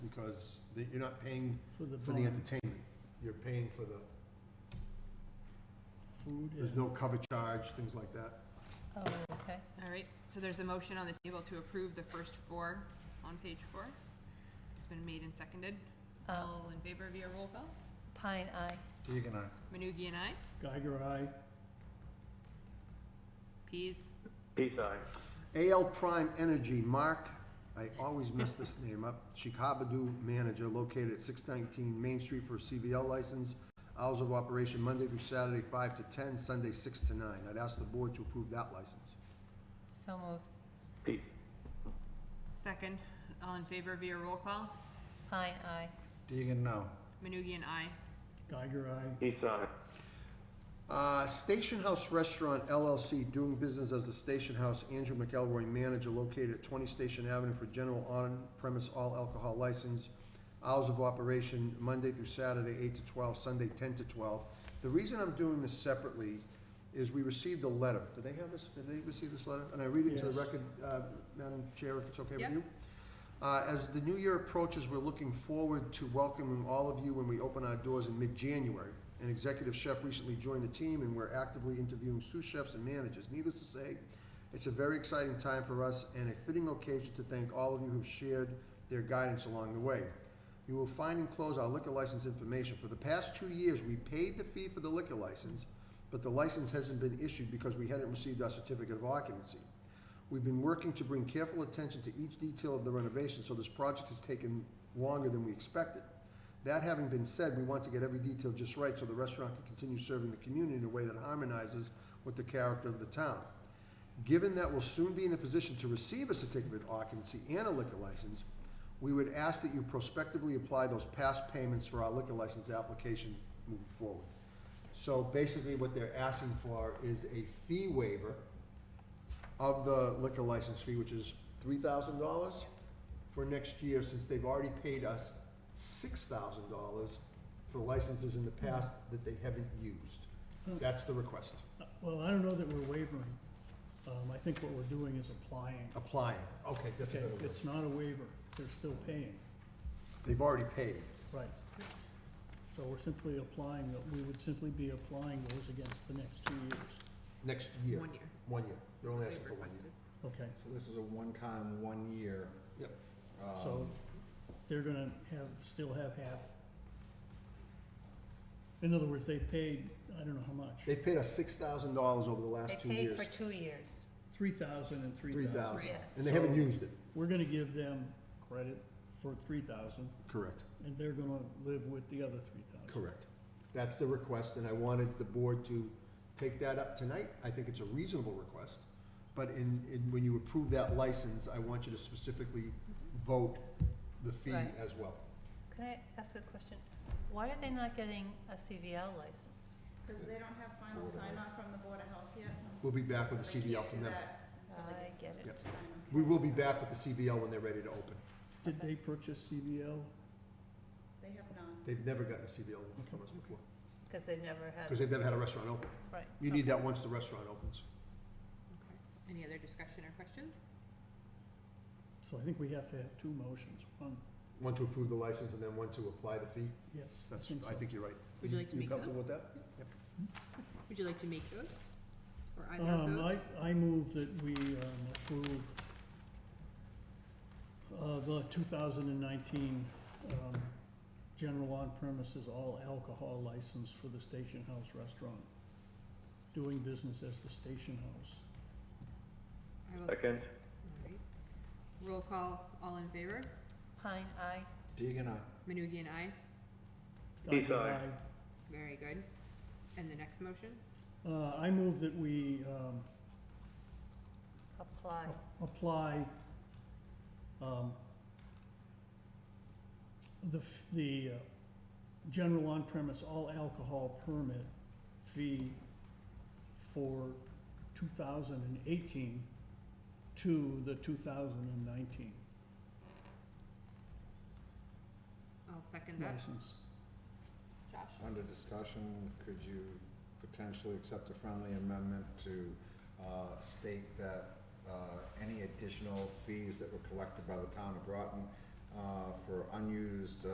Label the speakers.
Speaker 1: because the- you're not paying
Speaker 2: for the
Speaker 1: for the
Speaker 2: bond,
Speaker 1: entertainment. You're paying for the,
Speaker 2: food
Speaker 1: there's
Speaker 2: and
Speaker 1: no cover charge, things like that.
Speaker 3: Oh, okay.
Speaker 4: All right, so there's a motion on the table to approve the first four on page four. It's been made and seconded.
Speaker 3: Uh,
Speaker 4: All in favor via roll call?
Speaker 3: Pine, aye.
Speaker 5: Deegan, aye.
Speaker 4: Manugie and I.
Speaker 2: Geiger Eye.
Speaker 4: Pease.
Speaker 6: Peace, aye.
Speaker 1: AL Prime Energy, Mark, I always mess this name up, Chickabidoo manager located at six nineteen Main Street for a CBL license. Hours of operation Monday through Saturday, five to ten, Sunday, six to nine. I'd ask the board to approve that license.
Speaker 3: So moved.
Speaker 6: Peace,
Speaker 4: Second, all in favor via roll call?
Speaker 3: Pine, aye.
Speaker 5: Deegan, no.
Speaker 4: Manugie and I.
Speaker 2: Geiger Eye.
Speaker 6: peace, aye.
Speaker 1: Uh, Station House Restaurant LLC, doing business as the Station House, Andrew McElroy, manager, located at 20 Station Avenue for general on-premise all alcohol license. Hours of operation, Monday through Saturday, 8 to 12, Sunday, 10 to 12. The reason I'm doing this separately is we received a letter. Did they have this, did they receive this letter? And I read it to the
Speaker 2: Yes.
Speaker 1: record, uh, Madam Chair, if it's okay with
Speaker 4: Yep.
Speaker 1: you? Uh, As the new year approaches, we're looking forward to welcoming all of you when we open our doors in mid-January. An executive chef recently joined the team, and we're actively interviewing sous chefs and managers. Needless to say, it's a very exciting time for us and a fitting occasion to thank all of you who've shared their guidance along the way. You will find and close our liquor license information. For the past two years, we paid the fee for the liquor license, but the license hasn't been issued because we hadn't received our certificate of occupancy. We've been working to bring careful attention to each detail of the renovation, so this project has taken longer than we expected. That having been said, we want to get every detail just right so the restaurant can continue serving the community in a way that harmonizes with the character of the town. Given that we'll soon be in a position to receive a certificate of occupancy and a liquor license, we would ask that you prospectively apply those past payments for our liquor license application moving forward. So basically, what they're asking for is a fee waiver of the liquor license fee, which is three thousand dollars for next year, since they've already paid us six thousand dollars for licenses in the past that they haven't used. That's the request,
Speaker 2: Uh, Well, I don't know that we're wavering. Um, I think what we're doing is applying.
Speaker 1: applying. Okay, that's a
Speaker 2: Okay,
Speaker 1: better word.
Speaker 2: it's not a waiver, they're still paying,
Speaker 1: They've already paid.
Speaker 2: right. So we're simply applying, the- we would simply be applying those against the next two years.
Speaker 1: Next year.
Speaker 4: One year.
Speaker 1: One year. They're only asking
Speaker 4: They've
Speaker 1: for one year.
Speaker 4: requested.
Speaker 2: Okay,
Speaker 5: So this is a one-time, one-year.
Speaker 1: Yep. Um.
Speaker 2: so they're gonna have, still have half. In other words, they've paid, I don't know how much,
Speaker 1: They've paid us six thousand dollars over the
Speaker 3: They
Speaker 1: last two
Speaker 3: paid
Speaker 1: years.
Speaker 3: for two years.
Speaker 2: three thousand and three
Speaker 1: Three
Speaker 2: thousand.
Speaker 1: thousand.
Speaker 3: Yes.
Speaker 1: And they haven't used it.
Speaker 2: We're gonna give them credit for three thousand,
Speaker 1: Correct.
Speaker 2: and they're gonna live with the other three thousand.
Speaker 1: Correct. That's the request, and I wanted the board to take that up tonight. I think it's a reasonable request. But in, in, when you approve that license, I want you to specifically vote the fee
Speaker 3: Right.
Speaker 1: as well.
Speaker 3: Can I ask a question? Why are they not getting a CVL license?
Speaker 7: Because they don't have final sign off from the Board of Health yet.
Speaker 1: We'll be back with the
Speaker 7: so they
Speaker 1: CBL
Speaker 7: can't
Speaker 1: from
Speaker 7: do
Speaker 1: them.
Speaker 7: that until they
Speaker 3: I get it.
Speaker 1: Yep.
Speaker 7: get sign off.
Speaker 1: We will be back with the CBL when they're ready to open.
Speaker 2: Did they purchase CBL?
Speaker 7: They have not.
Speaker 1: They've never gotten a CBL from us before,
Speaker 3: Because they never
Speaker 1: because
Speaker 3: had,
Speaker 1: they've never had a restaurant open.
Speaker 3: right.
Speaker 1: You need that once the restaurant opens.
Speaker 4: Okay. Any other discussion or questions?
Speaker 2: So I think we have to have two motions, one,
Speaker 1: One to approve the license and then one to apply the fee.
Speaker 2: yes.
Speaker 1: That's, I
Speaker 2: so.
Speaker 1: think you're right.
Speaker 4: Would you like to make
Speaker 1: comfortable with that?
Speaker 4: Would you like to make those? Or either of
Speaker 2: Um,
Speaker 4: those?
Speaker 2: I, I move that we, um, approve, uh, the two thousand and nineteen, um, general on premises all alcohol license for the Station House Restaurant, doing business as the Station House.
Speaker 4: I will s-
Speaker 6: Second,
Speaker 4: all right. Roll call, all in favor?
Speaker 3: Pine, aye.
Speaker 5: Deegan, aye.
Speaker 4: Manugie and I.
Speaker 6: Peace,
Speaker 2: Dr.
Speaker 6: aye.
Speaker 2: Rai.
Speaker 4: Very good. And the next motion?
Speaker 2: Uh, I move that we, um,
Speaker 3: Apply.
Speaker 2: a- apply, um, the, f- the, uh, general on-premise all alcohol permit fee for two thousand and eighteen to the two thousand and nineteen
Speaker 4: I'll second that.
Speaker 2: license.
Speaker 4: Josh?
Speaker 5: Under discussion, could you potentially accept a friendly amendment to uh, state that uh, any additional fees that were collected by the town of Groton uh, for unused uh,